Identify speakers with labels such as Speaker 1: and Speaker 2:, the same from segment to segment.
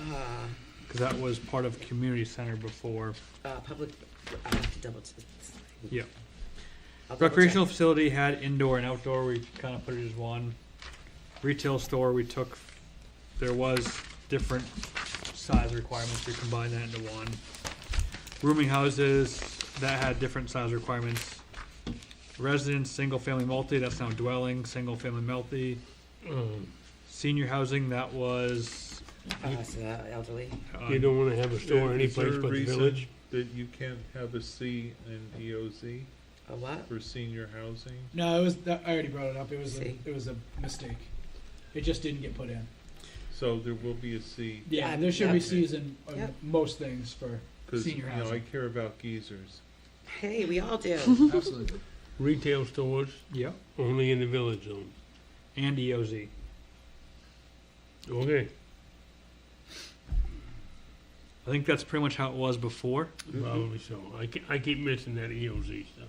Speaker 1: uh,
Speaker 2: Because that was part of community center before.
Speaker 1: uh, public, I have to double. check.
Speaker 2: Yeah.
Speaker 1: I'll double check.
Speaker 2: Recreational facility had indoor and outdoor, we kind of put it as one. Retail store, we took, there was different size requirements, we combined that into one. Rooming houses, that had different size requirements. Residence, single family multi, that's now dwelling, single family multi. Senior housing, that was,
Speaker 1: Uh, so the elderly,
Speaker 2: uh,
Speaker 3: You don't wanna have a store
Speaker 4: Is there
Speaker 3: anyplace
Speaker 4: a
Speaker 3: but the
Speaker 4: reason
Speaker 3: village.
Speaker 4: That you can't have a C in EOZ
Speaker 1: a what?
Speaker 4: for senior housing?
Speaker 5: No, it was. That, I already brought it up. It was. A,
Speaker 1: See?
Speaker 5: it was a mistake. It just didn't get put in.
Speaker 4: So there will be a C,
Speaker 5: Yeah,
Speaker 1: Yeah,
Speaker 5: there should be
Speaker 4: yeah.
Speaker 5: season on
Speaker 1: Yep.
Speaker 5: most things for.
Speaker 4: cause, you
Speaker 5: Senior
Speaker 4: know, I
Speaker 5: housing.
Speaker 4: care about geezers.
Speaker 1: Hey, we all
Speaker 2: Mm-hmm.
Speaker 1: do.
Speaker 6: Absolutely.
Speaker 3: Retail stores
Speaker 2: yeah,
Speaker 3: only in the village zone.
Speaker 2: and E EOZ.
Speaker 3: Okay.
Speaker 2: I think that's pretty much how it was before.
Speaker 3: Probably so. I ke- I keep missing that EOZ stuff.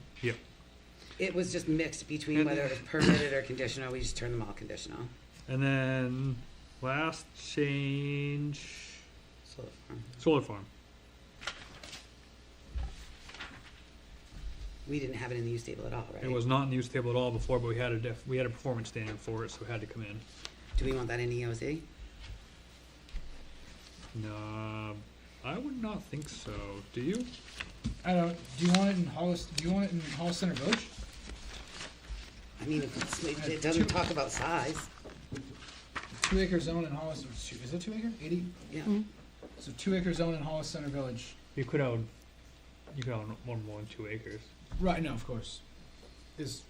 Speaker 1: It was just mixed between whether it was permitted or conditional, we just turned them all conditional.
Speaker 2: And then last change
Speaker 1: So, um,
Speaker 2: solar farm.
Speaker 1: we didn't have it in the use table at all, right?
Speaker 2: It was not in the use table at all before, but we had a def, we had a performance standard for it, so it had to come in.
Speaker 1: Do we want that in E EOC?
Speaker 2: No, I would not think so. Do you?
Speaker 5: I don't. Do you want it in Hollis? Do you want it in Hollis Center Village?
Speaker 1: I mean, if it's- it it doesn't talk about size,
Speaker 5: Two acre zone in Hollis. or two- Is it two acre? Eighty.
Speaker 1: yeah.
Speaker 5: So two acre zone in Hollis Center Village.
Speaker 2: You could own, you could own more than one, two acres.
Speaker 5: Right. No, of course. Is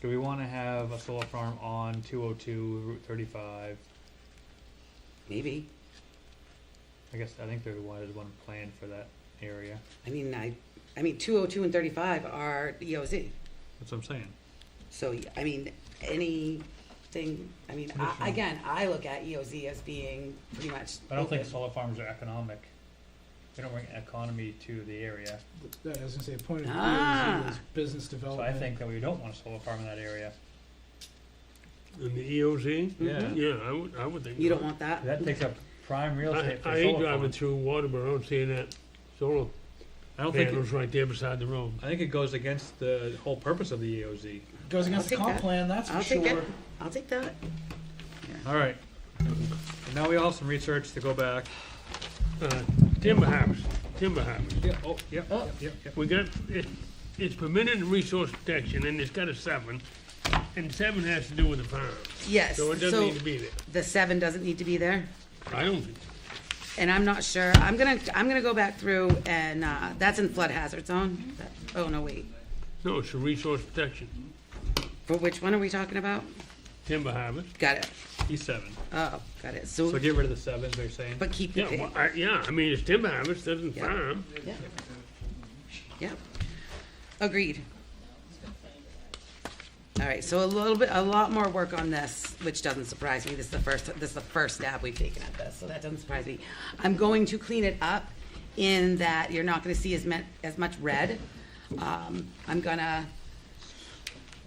Speaker 2: Do we wanna have a solar farm on two oh two, Route thirty-five?
Speaker 1: Maybe.
Speaker 2: I guess, I think there was one planned for that area.
Speaker 1: I mean, I, I mean, two oh two and thirty-five are E EOZ.
Speaker 2: That's what I'm saying.
Speaker 1: So, I mean, anything, I mean, I, again, I look at EOZ as being pretty much.
Speaker 2: I don't think
Speaker 1: open.
Speaker 2: solar farms are economic. They don't bring economy to the area.
Speaker 5: that I was gonna say a point of
Speaker 1: Ah.
Speaker 5: view is business
Speaker 2: So
Speaker 5: development.
Speaker 2: I think that we don't want a solar farm in that area.
Speaker 3: And the EOZ?
Speaker 2: Yeah.
Speaker 3: Yeah, I would, I would think.
Speaker 1: You don't
Speaker 3: not.
Speaker 1: want that?
Speaker 2: That takes up prime real
Speaker 3: I,
Speaker 2: estate for
Speaker 3: I
Speaker 2: a
Speaker 3: ain't
Speaker 2: solar
Speaker 3: driving
Speaker 2: farm.
Speaker 3: through Waterboro and seeing that solar
Speaker 2: I don't think, it-
Speaker 3: panels right there beside the road.
Speaker 2: I think it goes against the whole purpose of the E EOZ.
Speaker 5: goes against the
Speaker 1: I'll take
Speaker 5: comp
Speaker 1: that.
Speaker 5: plan. That's for
Speaker 1: I'll
Speaker 5: sure.
Speaker 1: take that, I'll take that.
Speaker 2: All right. And now we all have some research to go back.
Speaker 3: Uh, Timber harvest, timber harvest.
Speaker 2: Yeah, oh, yeah, yeah, yeah.
Speaker 3: We got, it, it's permitted in resource protection and it's got a seven, and seven has to do with the farm.
Speaker 1: Yes,
Speaker 3: So it doesn't
Speaker 1: so
Speaker 3: need to be there.
Speaker 1: the seven doesn't need to be there?
Speaker 3: I don't think,
Speaker 1: And I'm not sure, I'm gonna, I'm gonna go back through and, uh, that's in flood hazard zone? That- Oh, no, wait,
Speaker 3: no, it's a resource protection,
Speaker 1: for which one are we talking about?
Speaker 3: timber harvest.
Speaker 1: Got it,
Speaker 2: E seven.
Speaker 1: oh, got it,
Speaker 2: So
Speaker 1: so,
Speaker 2: get rid of the sevens, they're saying.
Speaker 1: but keep the
Speaker 3: Yeah, well,
Speaker 1: pig,
Speaker 3: I, yeah, I mean, it's timber harvest, doesn't
Speaker 1: Yeah.
Speaker 3: farm.
Speaker 1: yeah. Yeah, agreed. All right, so a little bit, a lot more work on this, which doesn't surprise me, this is the first, this is the first stab we've taken at this, so that doesn't surprise me. I'm going to clean it up in that you're not gonna see as men, as much red. Um, I'm gonna,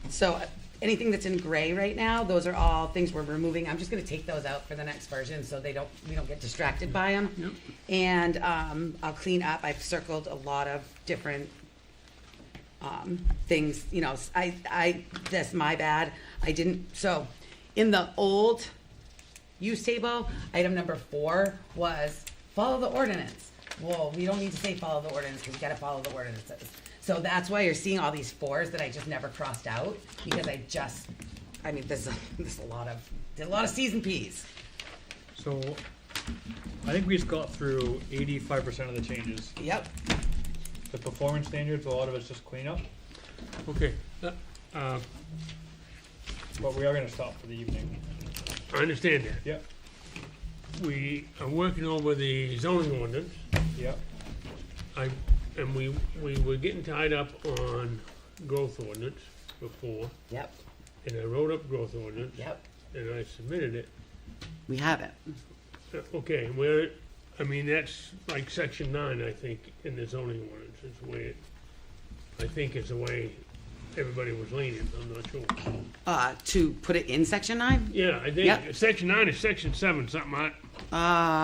Speaker 1: so uh, anything that's in gray right now, those are all things we're removing, I'm just gonna take those out for the next version, so they don't, we don't get distracted by them. And, um, I'll clean up, I've circled a lot of different um, things, you know, s- I, I, that's my bad, I didn't, so, in the old use table, item number four was follow the ordinance. Well, we don't need to say follow the ordinance, because we gotta follow the ordinances. So that's why you're seeing all these fours that I just never crossed out, because I just, I mean, there's, a- there's a lot of, there's a lot of Cs and Ps.
Speaker 2: So I think we just got through eighty-five percent of the changes.
Speaker 1: Yep,
Speaker 2: The performance standards, a lot of it's just cleanup,
Speaker 3: Okay, uh, uh,
Speaker 2: but we are gonna stop for the evening.
Speaker 3: I understand that.
Speaker 2: Yep,
Speaker 3: We are working over the zoning ordinance,
Speaker 2: yep,
Speaker 3: I, and we, we were getting tied up on growth ordinance before,
Speaker 1: yep,
Speaker 3: and I wrote up growth ordinance,
Speaker 1: yep,
Speaker 3: and I submitted it.
Speaker 1: we have it.
Speaker 3: Uh, Okay, where, I mean, that's like section nine, I think, in the zoning ordinance, is the way, it- I think is the way everybody was leaning, I'm not sure.
Speaker 1: Uh, to put it in section nine?
Speaker 3: Yeah, I
Speaker 1: Yep.
Speaker 3: think, section nine is section seven, something like,
Speaker 1: Uh,